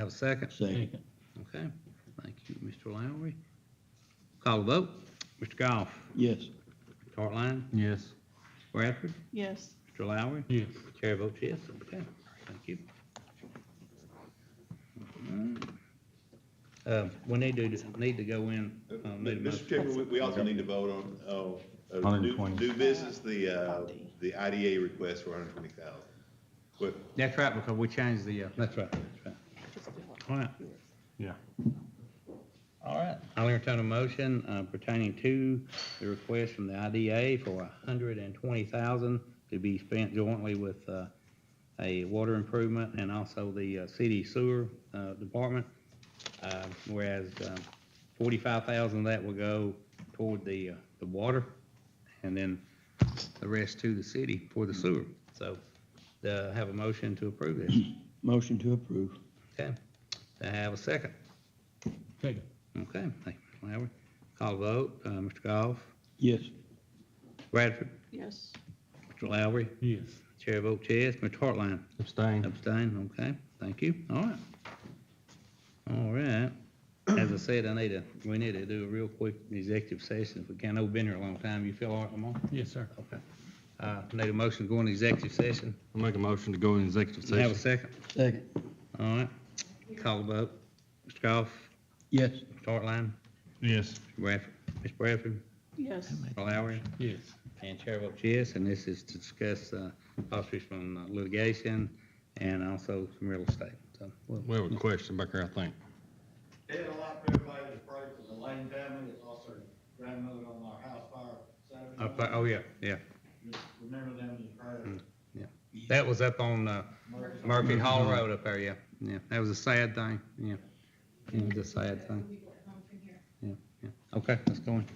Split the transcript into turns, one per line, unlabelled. Have a second?
Second.
Okay, thank you, Mr. Lowry. Call the vote. Mr. Goff,
Yes.
Hartline,
Yes.
Bradford,
Yes,
Mr. Lowry.
Yes.
Chair votes yes, okay, thank you. Uh, we need to, need to go in, uh, need a
Mr.
motion.
Chairman, we- we also need to vote on, oh, uh, new
120.
new business, the, uh,
Property.
the IDA request for 120,000. Well,
That's right, because we changed the, uh,
That's right, that's right. All right,
yeah.
all right. I'll entertain a motion uh, pertaining to the request from the IDA for a hundred and twenty thousand to be spent jointly with, uh, a water improvement and also the, uh, city sewer, uh, department. Uh, whereas, um, forty-five thousand of that will go toward the, uh, the water and then the rest to the city for the sewer. So, uh, have a motion to approve this.
Motion to approve.
Okay, do I have a second?
Second.
Okay, thank you, Mr. Lowry. Call the vote, uh, Mr. Goff,
Yes.
Bradford,
yes,
Mr. Lowry,
Yes.
chair votes yes, Mr. Hartline
Abstain.
abstain, okay, thank you, all right. All right, as I said, I need a, we need to do a real quick executive session, if we can, I've been here a long time, you feel all right, Lamar?
Yes, sir.
Okay, uh, need a motion to go into executive session,
I'll make a motion to go in executive
Do I have a second,
Second.
all right, call the vote, Mr. Goff,
Yes.
Mr. Hartline,
Yes.
Bradford, Ms. Bradford,
yes.
Mr. Lowry,
Yes.
And Chair votes yes, and this is to discuss uh, possibly some uh, litigation and also some real estate. So we'll-
We have a question back there, I think.
Did a lot for everybody that's prayed for the Lane family, it's also grandmother on our house fire
I
Saturday.
thought- Hmm. Oh, yeah, yeah,
Just Remember them in prayer.
that was up on uh, Murphy Hall Road up there, yeah, yeah, that was a sad thing, yeah. It was a sad thing. Yeah, yeah, okay, let's go in.